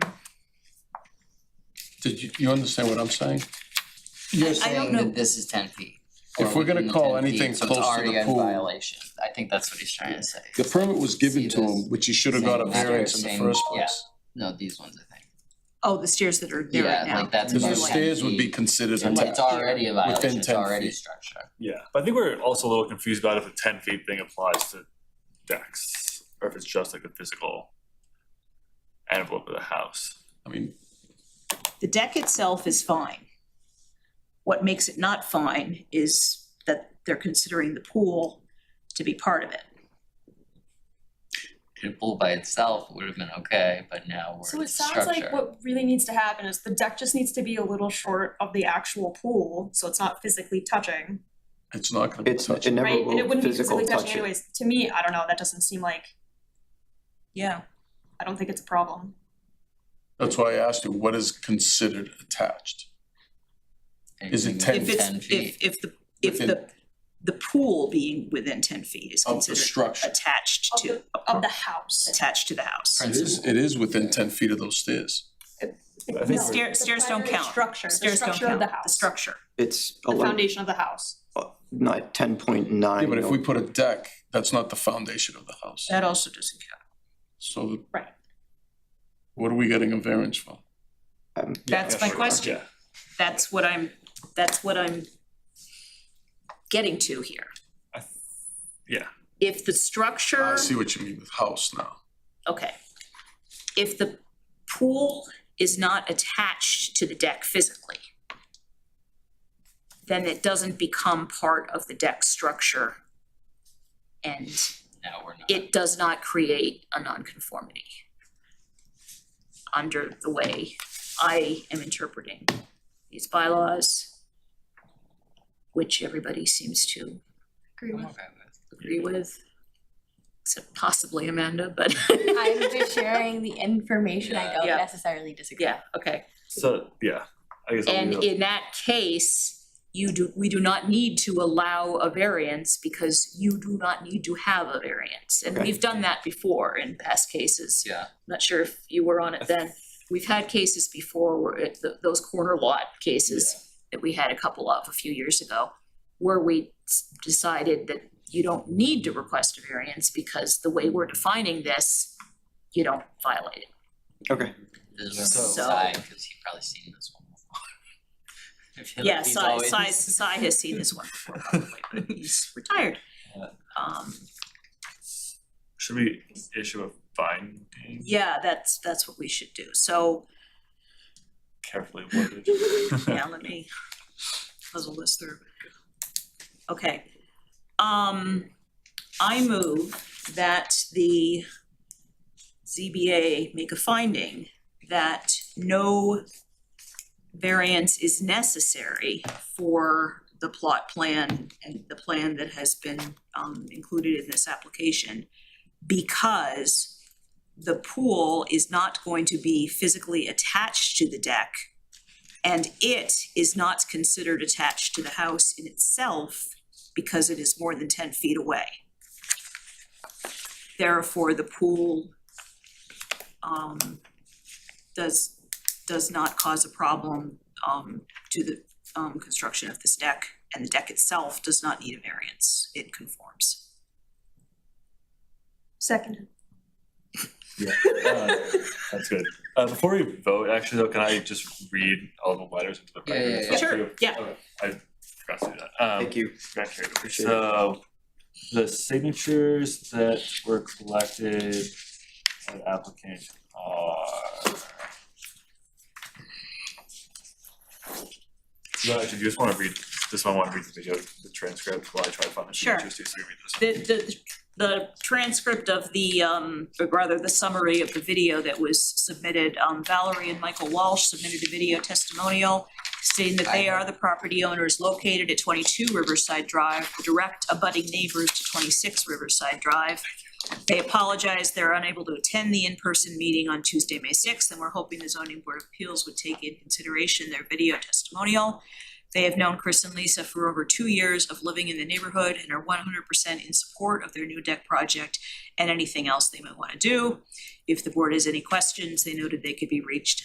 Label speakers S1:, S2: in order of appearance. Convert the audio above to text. S1: Did you, you understand what I'm saying?
S2: You're
S3: I don't
S2: saying
S3: know.
S2: that this is ten feet.
S1: If
S2: or
S1: we're gonna
S2: within the
S1: call
S2: 10 feet,
S1: anything
S2: so it's
S1: close to
S2: already
S1: the
S2: in
S1: pool-
S2: Violation, I think that's what he's trying to say.
S1: The permit was given to him, which he should have got a
S2: Same-
S1: variance in the
S2: same-
S1: first
S2: yeah.
S1: place.
S2: No, these ones, I think.
S3: Oh, the stairs that are there right
S2: Yeah,
S3: now.
S2: like that's.
S1: Cause the
S2: about
S3: Right.
S2: 10
S1: stairs would be
S2: feet.
S1: considered
S2: It's
S1: intact.
S2: it's already a violation, it's
S1: 10
S2: already
S1: feet.
S2: structure.
S4: Yeah, but I think we're also a little confused about if the ten feet thing applies to decks, or if it's just like the physical envelope of the house.
S1: I mean,
S3: The deck itself is fine. What makes it not fine is that they're considering the pool to be part of it.
S2: The pool by itself would have been okay, but now
S5: So
S2: we're
S5: it
S2: it's
S5: sounds
S2: structure.
S5: like what really needs to happen is the deck just needs to be a little short of the actual pool, so it's not physically touching,
S1: it's not gonna be
S6: It's,
S1: touched.
S6: it never
S5: right? And it
S6: will
S5: wouldn't be
S6: physical
S5: physically touching
S6: touch it.
S5: anyways. To me, I don't know, that doesn't seem like,
S3: Yeah.
S5: I don't think it's a problem.
S1: That's why I asked you, what is considered attached? Is it
S2: Anything
S1: 10
S3: If
S2: within
S3: it's,
S2: ten feet.
S3: if, if the, if the, the pool being within ten feet is
S1: Of the
S3: considered
S1: structure.
S3: attached
S5: Of
S3: to,
S5: the, of the house.
S3: attached to the house.
S1: It is, it is within ten feet of those stairs.
S4: I
S5: No,
S4: think we're-
S3: Stairs,
S5: the
S3: stairs don't
S5: primary
S3: count.
S5: Structure, the
S3: Stairs don't
S5: structure of
S3: count,
S5: the
S3: the
S5: house, the
S3: structure.
S6: It's eleven,
S5: foundation of the house.
S6: not ten point nine.
S1: Yeah, but if we put a deck, that's not the foundation of the house,
S3: That also doesn't count.
S1: so. the-
S5: Right.
S1: What are we getting a variance for?
S6: um,
S3: That's my
S4: sure.
S3: question.
S4: Yeah.
S3: That's what I'm, that's what I'm getting to here.
S4: I th- Yeah,
S3: If the structure.
S1: I see what you mean with house now.
S3: Okay. If the pool is not attached to the deck physically, then it doesn't become part of the deck structure and
S2: Now we're not.
S3: it does not create a nonconformity under the way I am interpreting these bylaws, which everybody seems to
S5: Agree
S2: I'm okay with
S3: agree with, except possibly Amanda, but.
S7: I'm just sharing the information. I don't
S3: Yeah.
S7: necessarily disagree.
S3: Yeah, okay.
S4: so, yeah, I guess. I'll leave
S3: And
S4: it up-
S3: in that case, you do, we do not need to allow a variance because you do not need to have a variance. And
S6: Okay.
S3: we've done that before in past cases.
S2: Yeah.
S3: Not sure if you were on it then. We've had cases before where it, th- those corner lot cases that we had a couple of a few years ago, where we s- decided that you don't need to request a variance because the way we're defining this, you don't violate it.
S6: Okay,
S2: This is
S4: So-
S2: Sai, because he probably seen this one before. I feel like
S3: Yeah,
S2: he's
S3: Sai,
S2: always-
S3: Sai, Sai has seen this one before, probably, but he's retired.
S2: Yeah.
S3: Um,
S4: Should we issue a finding
S3: yeah, that's, that's what we should do, so,
S4: carefully worded?
S3: yeah, let me puzzle this through. Okay, um, I move that the ZBA make a finding that no variance is necessary for the plot plan and the plan that has been um included in this application because the pool is not going to be physically attached to the deck and it is not considered attached to the house in itself because it is more than ten feet away. Therefore, the pool um does does not cause a problem um to the um construction of this deck, and the deck itself does not need a variance, it conforms.
S5: Second.
S4: Yeah, uh, that's good. Uh, before we vote, actually, though, can I just read all the letters into the
S2: Yeah, yeah, yeah.
S4: record? Thank
S3: Sure,
S4: you.
S3: yeah.
S4: Okay, I forgot to do that. Um,
S6: thank you.
S4: got carried away.
S6: Appreciate it.
S4: So, the signatures that were collected at application are. No, actually, do you just wanna read, this one, I wanna read the video, the transcript, while I try to find the
S3: Sure.
S4: signatures, too, so we read this.
S3: The the the transcript of the um, or rather the summary of the video that was submitted, um Valerie and Michael Walsh submitted a video testimonial stating that they are the property owners located at twenty-two Riverside Drive, the direct abutting neighbors to twenty-six Riverside Drive. They apologize, they're unable to attend the in-person meeting on Tuesday, May sixth, and we're hoping the zoning board of appeals would take in consideration their video testimonial. They have known Chris and Lisa for over two years of living in the neighborhood and are one hundred percent in support of their new deck project and anything else they might wanna do. If the board has any questions, they noted they could be reached